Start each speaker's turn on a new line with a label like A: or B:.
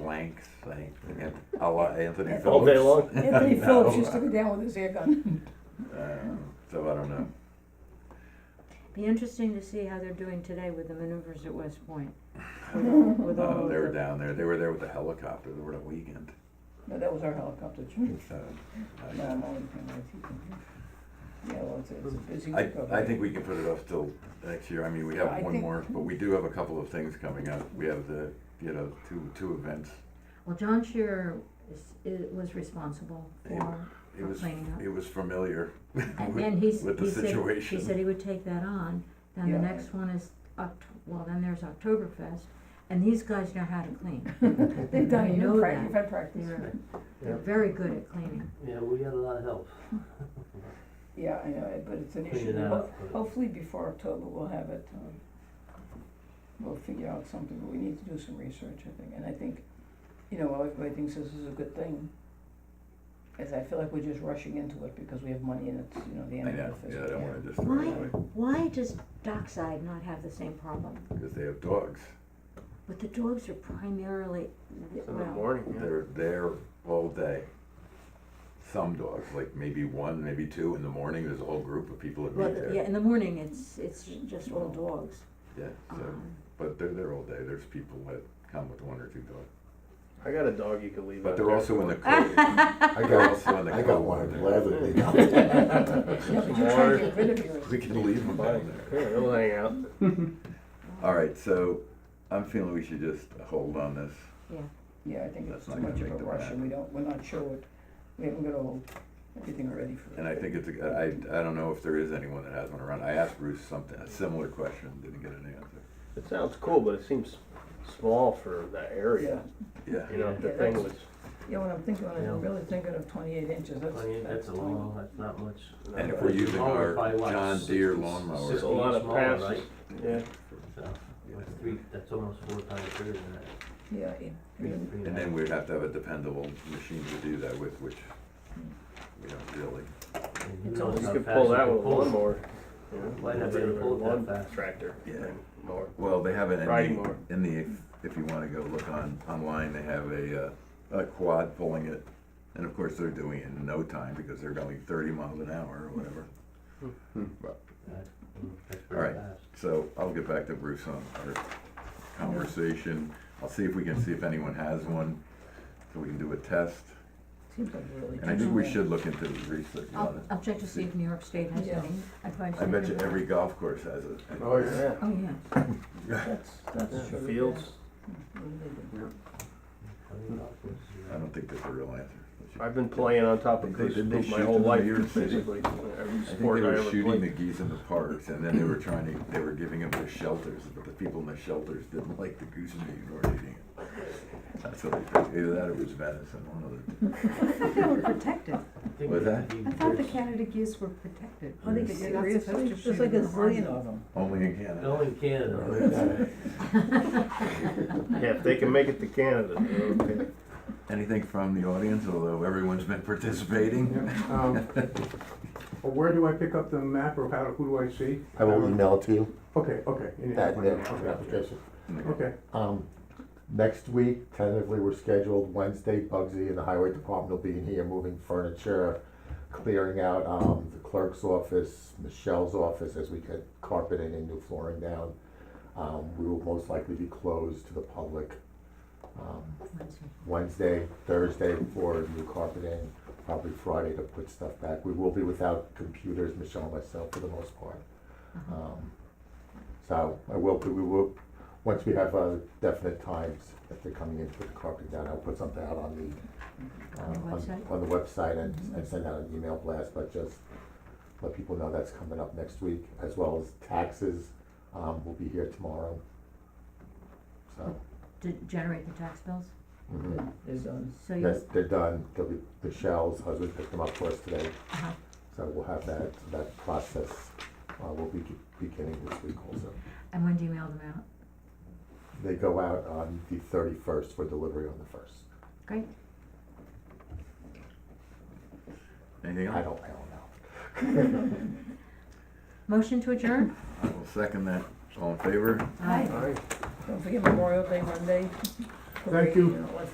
A: thanks, thanks. And I'll let Anthony Phillips.
B: All day long?
C: Anthony
A: No,
C: Phillips used to
A: uh,
C: be down with his air gun.
A: um, So I don't know.
D: Be interesting to see how they're doing today with the maneuvers at West Point. With all
A: Uh,
D: of
A: They were
D: the,
A: down there. They were there with the helicopter. They were on a weekend.
C: No, that was our helicopter trip.
A: So, I
C: No,
A: don't
C: I'm
A: know.
C: only kind of teasing you. Yeah, well, it's, it's a busy
A: I,
C: week over
A: I
C: there.
A: think we can put it off till next year. I mean, we
C: I
A: have one
C: think-
A: more, but we do have a couple of things coming up. We have the, you know, two, two events.
D: well, John Shearer is, is, was responsible for,
A: It was,
D: Cleaning up.
A: it was familiar.
D: and then he's,
A: with the
D: he said, he
A: situation.
D: said he would take that on. Then the
C: Yeah.
D: next one is Oct- well, then there's Oktoberfest, and these guys know how to clean.
C: They've done
D: I
C: it,
D: know
C: you've
D: that.
C: had practice.
D: They're, they're very good at cleaning.
B: Yeah, we got a lot of help.
C: Yeah, I know, but it's an
B: Clean
C: issue.
B: it
C: Ho-
B: up, but-
C: Hopefully before October, we'll have it, um, we'll figure out something, but we need to do some research, I think, and I think, you know, while everybody thinks this is a good thing, is I feel like we're just rushing into it because we have money and it's, you know, the end
A: I
C: of
A: know,
C: the
A: yeah, I
C: fiscal
A: don't
C: year.
A: wanna just throw it
D: Why,
A: away,
D: why does Dockside not have the same problem?
A: because they have dogs.
D: But the dogs are primarily,
B: In
A: Oh,
B: the
D: well,
B: morning, yeah.
A: They're there all day. Some dogs, like maybe one, maybe two in the morning, there's a whole group of people that
D: well,
A: meet there.
D: yeah, in the morning, it's, it's just all dogs.
A: Yeah, so,
D: Um,
A: but they're there all day. There's people that come with one or two dogs.
B: I got a dog you could leave
A: But
B: out
A: they're
B: there
A: also in the
B: for-
A: code.
E: I
A: They're
E: got,
A: also in the
E: I
A: code.
E: got one gladly.
C: Yeah, but you're trying to get rid of yours.
A: We can leave them down
B: Fine.
A: there.
B: Yeah, they'll hang out.
A: All right, so I'm feeling we should just hold on this.
D: Yeah.
C: Yeah, I think
A: That's
C: it's too
A: not gonna
C: much of
A: make
C: a
A: the
C: rush
A: map.
C: and we don't, we're not sure what, we haven't got all, everything ready for it.
A: And I think it's, a- I, I don't know if there is anyone that has one around. I asked Bruce something, a similar question, didn't get an answer.
B: It sounds cool, but it seems small for that area.
A: Yeah,
B: You know, if the
C: Yeah,
B: thing
C: that's-
B: was.
C: Yeah, when I'm thinking, when
B: Yeah.
C: I'm really thinking of twenty-eight inches, that's,
F: I mean, that's a
C: tiny.
F: long, that's not much. not
A: and if
F: much.
A: we're using our
F: Smaller by what,
A: John
F: 60,
A: Deere lawnmower.
F: 60
B: A lot of
F: smaller,
B: passes.
F: right?
B: Yeah.
F: So, that's three, that's almost four times bigger than that.
C: Yeah, yeah. I mean,
F: Three
A: And
F: half.
A: then we'd have to have a dependable machine to do that with, which we don't really.
F: And
C: It's
F: who knows
C: almost-
B: You
F: how
B: could
F: fast
B: pull that
F: can
B: with a
F: pull it.
B: lawnmower. you know,
F: Might not be able to pull it that
B: lawn
F: fast.
B: Tractor.
A: Yeah.
B: thing, Mower.
A: Well, they have it in
B: Riding
A: the,
B: mower.
A: in the, if you wanna go look on, online, they have a, uh, a quad pulling it. And of course, they're doing it in no time because they're going thirty miles an hour or whatever.
F: That- mm, That's
A: All right.
F: pretty fast.
A: So I'll get back to Bruce on our conversation. I'll see if we can see if anyone has one, so we can do a test.
C: Seems like a really.
A: And I think we
C: good
A: should look into the research
D: I'll,
A: on it.
D: I'll check to see if New York State has
C: Yeah.
D: any. I'd probably
A: I
D: say
A: bet you
D: no.
A: every golf course has it.
E: Oh, yeah.
B: Yeah.
D: Oh, yeah.
C: plan. That's,
B: Yeah,
C: that's true.
B: Fields.
C: yeah. Really good.
F: Twenty dollars.
A: I don't think that's a real answer.
B: I've been playing on top of
A: They-
B: Cruise
A: didn't they
B: my
A: shoot
B: whole
A: them in
B: life,
A: New York City?
B: basically. Every
A: I think they
B: sport I
A: were
B: ever
A: shooting the
B: played.
A: geese in the parks, and then they were trying to, they were giving them their shelters, but the people in the shelters didn't like the goose meat or eating it. That's what I think. Either that or it was venison, one of the.
G: I thought they were protected.
A: What's that?
G: I thought the Canada geese were protected.
A: Oh, they-
G: You're not supposed to
C: There's
G: shoot
C: like a
G: in the army.
C: zillion of them.
A: Only in Canada.
F: Only in Canada.
B: Yeah, if they can make it to Canada, they're okay.
A: Anything from the audience, although everyone's been participating?
H: Um, well, Where do I pick up the map or how, who do I see?
E: I will email it to you,
H: Okay, okay. you need to
E: that,
H: find
E: that
H: out, okay.
E: application.
H: Okay,
E: Um, next week, tentatively, we're scheduled Wednesday, Bugsy and the highway department will be in here moving furniture, clearing out, um, the clerk's office, Michelle's office, as we get carpeting and new flooring down. Um, we will most likely be closed to the public, um,
D: Wednesday.
E: Wednesday, Thursday for new carpeting, probably Friday to put stuff back. We will be without computers, Michelle and myself, for the most part.
D: Uh-huh.
E: Um, So I will, we will, once we have uh, definite times that they're coming in to put the carpeting down, I'll put something out on the, uh,
D: On the website? Mm-hmm.
E: On the website and, and send out an email blast, but just let people know that's coming up next week, as well as taxes, um, will be here tomorrow. So,
D: To generate the tax bills?
E: mhm.
C: There's, um,
D: So you,
E: Yes, they're done, they'll be, the shells, husband picked them up for us today,
D: uh-huh.
E: so we'll have that, that process, uh, will be beginning this week also.
D: and when do you mail them out?
E: They go out on the thirty-first for delivery on the first.
D: Great.
A: Anything
E: I
A: else?
E: don't, I don't know.
D: Motion to adjourn?
A: I will second that. All in favor?
D: Aye.
B: All right.
C: don't forget Memorial Day Monday.
H: Thank you.
C: know, let's